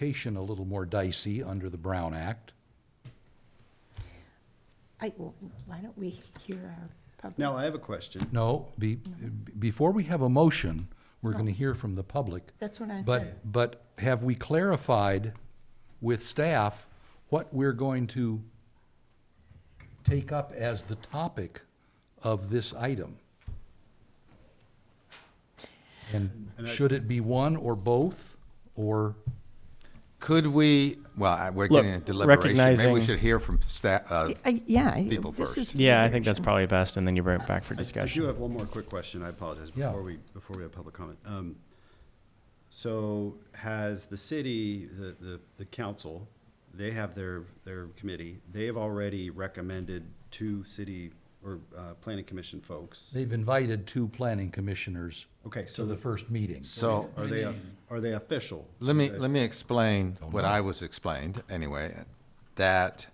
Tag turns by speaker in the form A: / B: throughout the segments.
A: classification a little more dicey under the Brown Act.
B: I, well, why don't we hear our public?
C: Now, I have a question.
A: No, be, before we have a motion, we're gonna hear from the public.
B: That's what I said.
A: But, but have we clarified with staff what we're going to take up as the topic of this item? And should it be one or both, or,
D: Could we, well, I- we're
E: Look,
D: getting into deliberation. Maybe we
E: recognizing-
D: should hear from staff, uh,
B: I- Yeah. I-
D: People
B: this is
D: first.
E: Yeah, I think that's
B: deliberation.
E: probably best, and then you bring it back for
C: I do
E: discussion.
C: have one more quick question. I apologize
A: Yeah.
C: before we, before we have public comment. Um, So has the city, the, the, the council, they have their, their committee, they have already recommended two city or, uh, planning commission folks.
A: they've invited two planning commissioners
C: Okay,
A: to the
C: so
A: first meeting.
D: so
C: are they, of- are they official?
D: let me, let me explain what I was explained anyway, that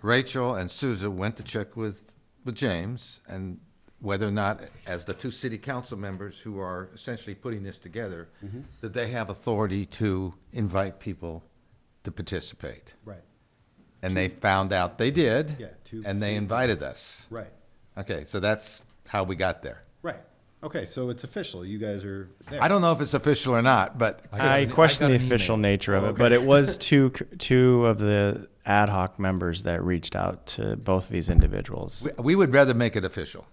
D: Rachel and Susan went to check with, with James and whether or not, as the two city council members who are essentially putting this together,
C: Mm-hmm.
D: that they have authority to invite people to participate.
C: Right,
D: And they found out they did.
C: Yeah, two city
D: And they
C: people.
D: invited us.
C: right,
D: Okay, so that's how we got there.
C: right. Okay, so it's official. You guys are there.
D: I don't know if it's official or not, but
E: I question
A: got
E: the
A: an
E: official
A: email.
E: nature of it, but it was two c- two of the ad hoc members that reached out to both of these individuals.
D: we, we would rather make it official.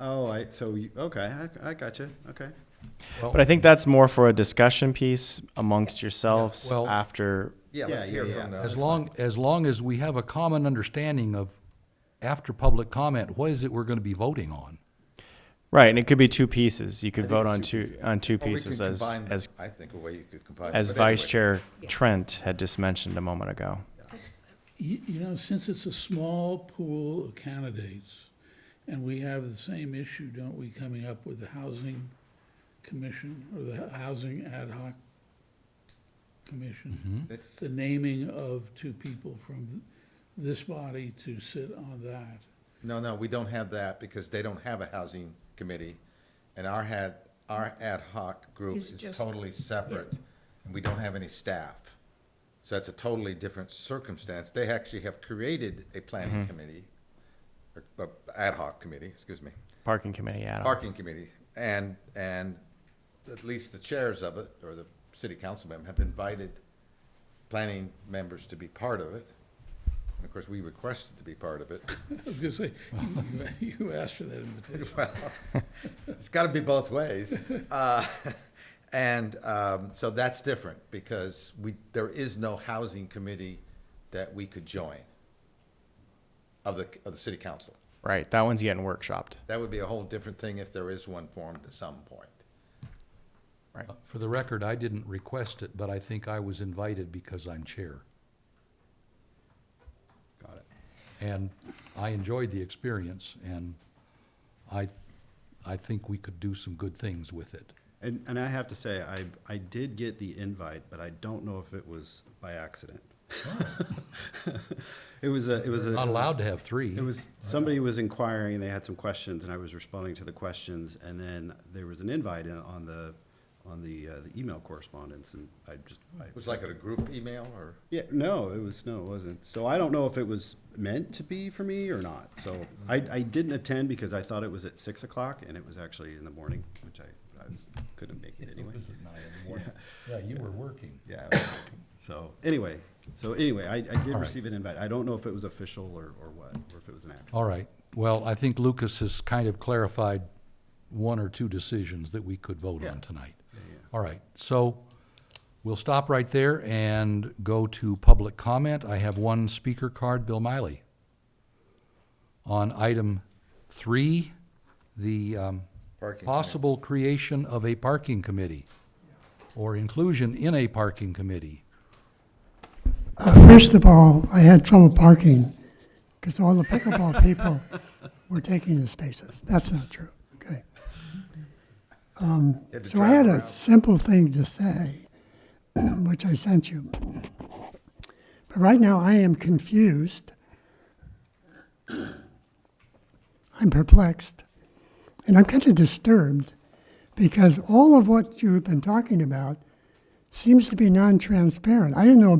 C: Oh, I, so you, okay, I, I got you. Okay.
E: But I think that's more for a discussion piece amongst yourselves
A: Well-
E: after.
D: Yeah,
C: let's Yeah, hear yeah, from yeah. the-
A: As long, as long as we have a common understanding of, after public comment, what is it we're gonna be voting on?
E: Right, and it could be two pieces. You could
D: think
E: vote
D: it's
E: on
D: two
E: two
D: pieces.
E: on two pieces as as
D: I think a way you could combine.
E: as Vice Chair Trent had just mentioned a moment ago.
F: You, you know, since it's a small pool of candidates, and we have the same issue, don't we, coming up with the housing commission or the housing ad hoc commission?
D: It's-
F: The naming of two people from this body to sit on that.
D: No, no, we don't have that because they don't have a housing committee, and our had our ad hoc group
B: It's
D: is
B: just-
D: totally separate, and we don't have any staff. So that's a totally different circumstance. They actually have created a
E: Mm-hmm.
D: planning committee, a, a ad hoc committee, excuse me.
E: Parking committee ad hoc.
D: parking committee, and, and at least the chairs of it, or the city council member, have invited planning members to be part of it. And of course, we requested to be part of it.
F: I was gonna say, you- you asked for that invitation.
D: Well, it's gotta be both ways. Uh, And, um, so that's different, because we, there is no housing committee that we could join of the, of the city council.
E: Right, that one's getting workshopped.
D: That would be a whole different thing if there is one formed at some point.
A: For the record, I didn't request it, but I think I was invited because I'm chair.
C: Got it.
A: And I enjoyed the experience, and I, th- I think we could do some good things with it.
C: And, and I have to say, I, I did get the invite, but I don't know if it was by accident. It was a, it was a.
A: Not allowed to have three.
C: It was, somebody was inquiring, they had some questions, and I was responding to the questions, and then there was an invite in- on the, on the, uh, the email correspondence, and I just. I-
D: It was like at a group email, or?
C: Yeah, no, it was, no, it wasn't. So I don't know if it was meant to be for me or not, so I, I didn't attend because I thought it was at six o'clock, and it was actually in the morning, which I, I was, couldn't make it anyway.
A: was at nine in the morning. Yeah, you were working.
C: Yeah. So, anyway, so anyway, I, I did
A: right.
C: receive an invite. I don't know if it was official or, or what, or if it was an accident.
A: All right. Well, I think Lucas has kind of clarified one or two decisions that we could vote on tonight. All right. So we'll stop right there and go to public comment. I have one speaker card, Bill Miley. On item three, the um,
D: Parking committee.
A: possible creation of a parking committee or inclusion in a parking committee.
G: First of all, I had trouble parking because all the pickleball people were taking the spaces. That's not true, okay?
D: You had to
G: So I
D: drive
G: had
D: around.
G: a simple thing to say, which I sent you. But right now, I am confused. I'm perplexed. And I'm kind of disturbed because all of what you've been talking about seems to be non-transparent. I didn't know